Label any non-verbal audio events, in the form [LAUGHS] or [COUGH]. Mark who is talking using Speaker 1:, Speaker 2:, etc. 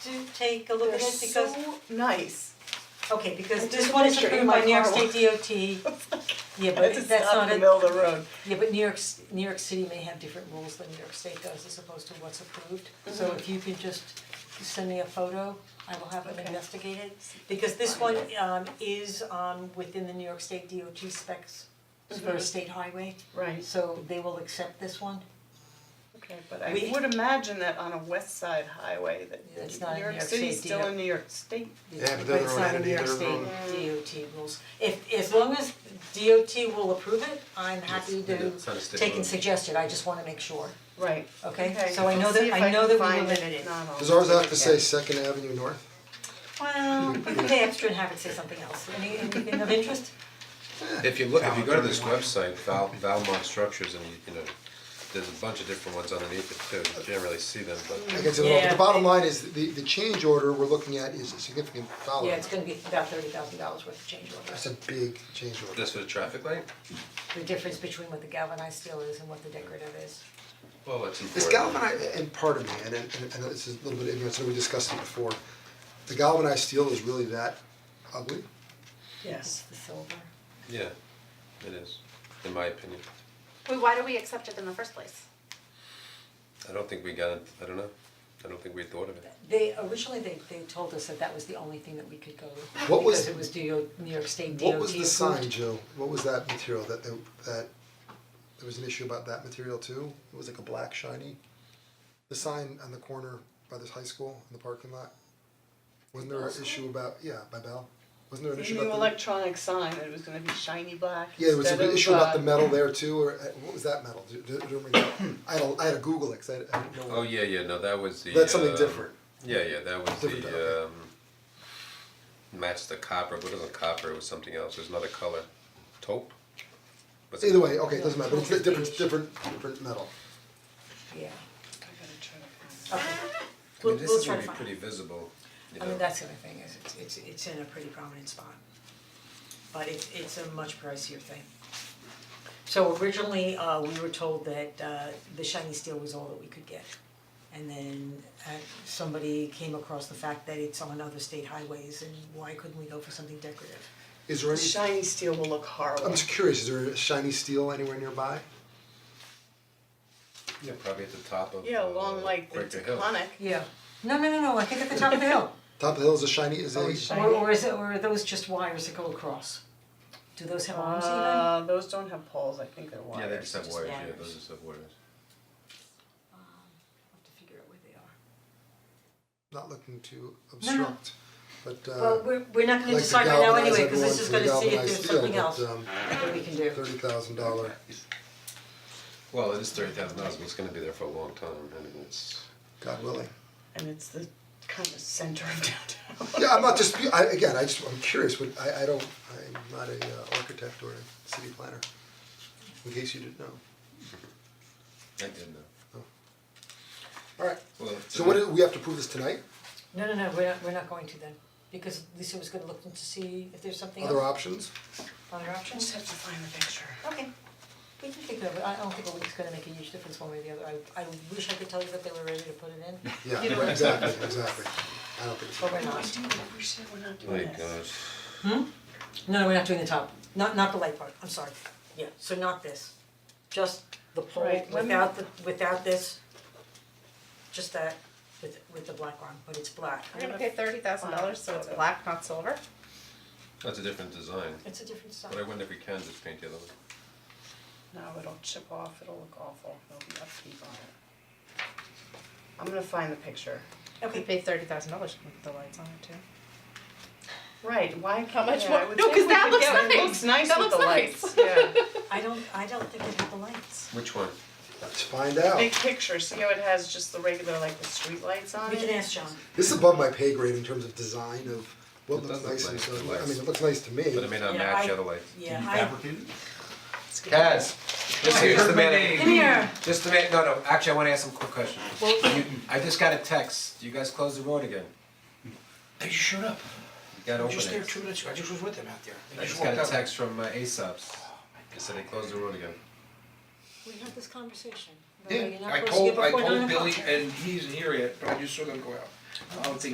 Speaker 1: to take a look
Speaker 2: They're
Speaker 1: at it because,
Speaker 2: so nice.
Speaker 1: okay, because
Speaker 2: I
Speaker 1: this
Speaker 2: took a
Speaker 1: one is
Speaker 2: picture
Speaker 1: approved
Speaker 2: in my
Speaker 1: by New York
Speaker 2: car
Speaker 1: State DOT.
Speaker 2: [LAUGHS]
Speaker 1: Yeah,
Speaker 2: I
Speaker 1: but
Speaker 2: just
Speaker 1: that's
Speaker 2: stopped
Speaker 1: not
Speaker 2: in the
Speaker 1: a,
Speaker 2: middle of the road.
Speaker 1: yeah, but New York, S- New York City may have different rules than New York State does as opposed to what's approved.
Speaker 2: Mm-hmm.
Speaker 1: So if you can just send me a photo, I will have them
Speaker 2: Okay.
Speaker 1: investigated. Because this one um is um within the New York State DOT specs
Speaker 2: Mm-hmm.
Speaker 1: for a state highway,
Speaker 2: Right.
Speaker 1: so they will accept this one.
Speaker 2: Okay, but I
Speaker 1: We-
Speaker 2: would imagine that on a west side highway that
Speaker 1: Yeah, it's not in
Speaker 2: New
Speaker 1: New
Speaker 2: York
Speaker 1: York
Speaker 2: City's
Speaker 1: State,
Speaker 2: still
Speaker 1: yeah.
Speaker 2: in New York State.
Speaker 3: Yeah, but
Speaker 1: But
Speaker 3: they're
Speaker 1: it's
Speaker 3: their
Speaker 1: not
Speaker 3: own
Speaker 1: in New York
Speaker 3: entity,
Speaker 1: State
Speaker 3: they're
Speaker 1: DOT rules. If, as long as DOT will approve it, I'm happy to
Speaker 4: It's not a state
Speaker 1: take and
Speaker 4: road.
Speaker 1: suggest it, I just wanna make sure,
Speaker 2: Right.
Speaker 1: okay?
Speaker 2: Okay.
Speaker 1: So I know
Speaker 2: I'll see
Speaker 1: that,
Speaker 2: if
Speaker 1: I
Speaker 2: I
Speaker 1: know
Speaker 2: can
Speaker 1: that we
Speaker 2: find
Speaker 1: limited.
Speaker 2: it. It's not on-
Speaker 3: Does ours have to say Second Avenue North?
Speaker 1: [LAUGHS] Well, we could pay extra and have it say something else, any, anything of interest?
Speaker 4: If you look, if you go to this website, Val, Valmont Structures, and you, you know, there's a bunch of different ones underneath it too, you can't really see them, but.
Speaker 3: I guess it all, but
Speaker 1: Yeah.
Speaker 3: the bottom line is, the, the change order we're looking at is a significant dollar.
Speaker 1: Yeah, it's gonna be about thirty thousand dollars worth of change orders,
Speaker 3: That's a big change order.
Speaker 4: This for the traffic light?
Speaker 1: the difference between what the galvanized steel is and what the decorative is.
Speaker 4: Well, it's important.
Speaker 3: Is galvanized, and pardon me, and and and this is a little bit ignorant, so we discussed it before. The galvanized steel is really that ugly?
Speaker 1: Yes. The silver.
Speaker 4: Yeah, it is, in my opinion.
Speaker 5: Wait, why do we accept it in the first place?
Speaker 4: I don't think we got, it. I don't know, I don't think we thought of it.
Speaker 1: They, originally, they, they told us that that was the only thing that we could go with,
Speaker 3: What was-
Speaker 1: because it was DO, New York State DOT
Speaker 3: What was the
Speaker 1: approved.
Speaker 3: sign, Jill? What was that material that they, that, there was an issue about that material too? It was like a black shiny? The sign on the corner by this high school in the parking lot? Wasn't there an issue about, yeah, by Bell? Wasn't there an issue
Speaker 2: The
Speaker 3: about the?
Speaker 2: new electronic sign, that it was gonna be shiny black
Speaker 3: Yeah, there was
Speaker 2: instead
Speaker 3: an
Speaker 2: of,
Speaker 3: issue about
Speaker 2: uh,
Speaker 3: the metal there too, or uh, what was that metal? Do- do- do you remember? I had a, I had a Google it, 'cause I I didn't know.
Speaker 4: Oh, yeah, yeah, no, that was the.
Speaker 3: That's something
Speaker 4: uh,
Speaker 3: different.
Speaker 4: Yeah, yeah, that was
Speaker 3: Different, okay.
Speaker 4: the, um, matched the copper, but it wasn't copper, it was something else, it was another color, taupe? Was it-
Speaker 3: Either way, okay, it doesn't matter, but it's a different, different, different metal.
Speaker 1: Yeah,
Speaker 2: I gotta try
Speaker 1: okay,
Speaker 2: to
Speaker 4: I mean,
Speaker 1: We'll-
Speaker 4: this
Speaker 1: we'll
Speaker 4: is
Speaker 1: try
Speaker 4: gonna be
Speaker 1: to find
Speaker 4: pretty visible, you know.
Speaker 1: I mean, that's the other thing, is it's it's it's in a pretty prominent spot. But it's it's a much pricier thing. So originally, uh we were told that uh the shiny steel was all that we could get. And then uh somebody came across the fact that it's on other state highways and why couldn't we go for something decorative?
Speaker 3: Is there
Speaker 2: find-
Speaker 3: any,
Speaker 2: Shiny steel will look horrible.
Speaker 3: I'm just curious, is there a shiny steel anywhere nearby?
Speaker 4: Yeah, probably at the top of.
Speaker 2: Yeah,
Speaker 4: uh,
Speaker 2: along like the
Speaker 4: Quaker Hill.
Speaker 2: Taconic.
Speaker 1: Yeah. No, no, no, no, I think at the top of the [LAUGHS] hill.
Speaker 3: Top of the hill is a shiny, is
Speaker 2: Oh,
Speaker 3: a,
Speaker 2: it's
Speaker 1: Or or is it, or are those just wires that go across? Do those have arms even?
Speaker 2: Uh, those don't have poles, I think they're wires.
Speaker 4: Yeah, they just have
Speaker 1: just
Speaker 4: wires, yeah,
Speaker 1: wires.
Speaker 4: those just have wires.
Speaker 1: I'll have to figure out where they are.
Speaker 3: not looking to obstruct, but uh.
Speaker 1: Well, we're we're not gonna
Speaker 3: like to
Speaker 1: decide right now
Speaker 3: galvanize
Speaker 1: anyway, cause this is
Speaker 3: everyone
Speaker 1: gonna
Speaker 3: to
Speaker 1: see if there's
Speaker 3: galvanized steel,
Speaker 1: something else
Speaker 3: but, um,
Speaker 1: that we can do.
Speaker 3: thirty thousand dollar,
Speaker 4: Well, it is thirty thousand dollars, but it's gonna be there for a long time, and it's,
Speaker 3: God willing.
Speaker 2: And it's the kind of center of [LAUGHS] downtown.
Speaker 3: Yeah, I'm not just, I, again, I just, I'm curious, but I, I don't, I'm not a uh, architect or a city planner, in case you didn't know.
Speaker 4: I didn't know.
Speaker 3: Alright,
Speaker 4: Well,
Speaker 3: so what, do- we have to prove this tonight,
Speaker 1: No, no, no, we're not, we're not going to then, because Lisa was gonna look to see if there's something
Speaker 3: other
Speaker 1: else,
Speaker 3: options?
Speaker 1: other options.
Speaker 2: have to find the picture.
Speaker 1: Okay, we can figure it out, but I don't think a week's gonna make a huge difference one way or the other, I I wish I could tell you that they were ready to put it in,
Speaker 3: Yeah, right, exactly, exactly, I don't think so.
Speaker 1: but we're
Speaker 2: I
Speaker 1: [LAUGHS] not.
Speaker 2: do, we said we're not doing
Speaker 4: My
Speaker 2: this.
Speaker 4: gosh,
Speaker 1: No, no, we're not doing the top, not not the light part, I'm sorry, yeah, so not this, just the pole
Speaker 2: Right, let me-
Speaker 1: without the, without this. Just that with with the black one, but it's black,
Speaker 5: We're gonna pay thirty thousand dollars, so it's black, not silver.
Speaker 4: that's a different design,
Speaker 1: it's a different
Speaker 4: but I
Speaker 1: style.
Speaker 4: wonder if we can just paint the other one.
Speaker 2: No, it'll chip off, it'll look awful, there'll be upkeep on it. I'm gonna find the picture.
Speaker 5: We
Speaker 1: Okay,
Speaker 5: pay thirty thousand dollars with the lights on it too.
Speaker 2: Right, why,
Speaker 5: How much
Speaker 2: yeah,
Speaker 5: more-
Speaker 2: I would
Speaker 5: no,
Speaker 2: think
Speaker 5: 'cause
Speaker 2: we
Speaker 5: that
Speaker 2: could
Speaker 5: looks
Speaker 2: get-
Speaker 5: nice.
Speaker 2: It looks nice
Speaker 5: That
Speaker 2: with the
Speaker 5: looks
Speaker 2: lights,
Speaker 5: nice.
Speaker 2: yeah.
Speaker 1: I don't, I don't think it had the lights.
Speaker 4: Which one?
Speaker 3: Let's find out,
Speaker 2: Big picture, see how it has just the regular, like the street lights on
Speaker 1: We
Speaker 2: it?
Speaker 1: can ask John.
Speaker 3: this is above my pay grade in terms of design of what
Speaker 4: It
Speaker 3: looks
Speaker 4: does look
Speaker 3: nice and
Speaker 4: nice,
Speaker 3: so,
Speaker 4: it
Speaker 3: I
Speaker 4: looks-
Speaker 3: mean, it looks nice to me.
Speaker 4: But it may not
Speaker 1: Yeah,
Speaker 4: match
Speaker 1: I-
Speaker 4: the other light.
Speaker 1: Yeah,
Speaker 4: Kaz, just here's the man,
Speaker 1: Come here.
Speaker 4: just the man, no, no, actually, I wanna ask some quick questions. You- I just got a text, you guys closed the road again,
Speaker 6: They just showed up.
Speaker 4: you gotta
Speaker 6: I
Speaker 4: open
Speaker 6: was just there
Speaker 4: it.
Speaker 6: two minutes ago. I just was with them out there. They
Speaker 4: I just
Speaker 6: walked
Speaker 4: got a
Speaker 6: out. Oh
Speaker 4: text from uh, Aesop's, they said they closed the road again.
Speaker 1: We had this conversation.
Speaker 6: Yeah, I told, I told Billy and he's in here yet, but I just saw them go out. I don't think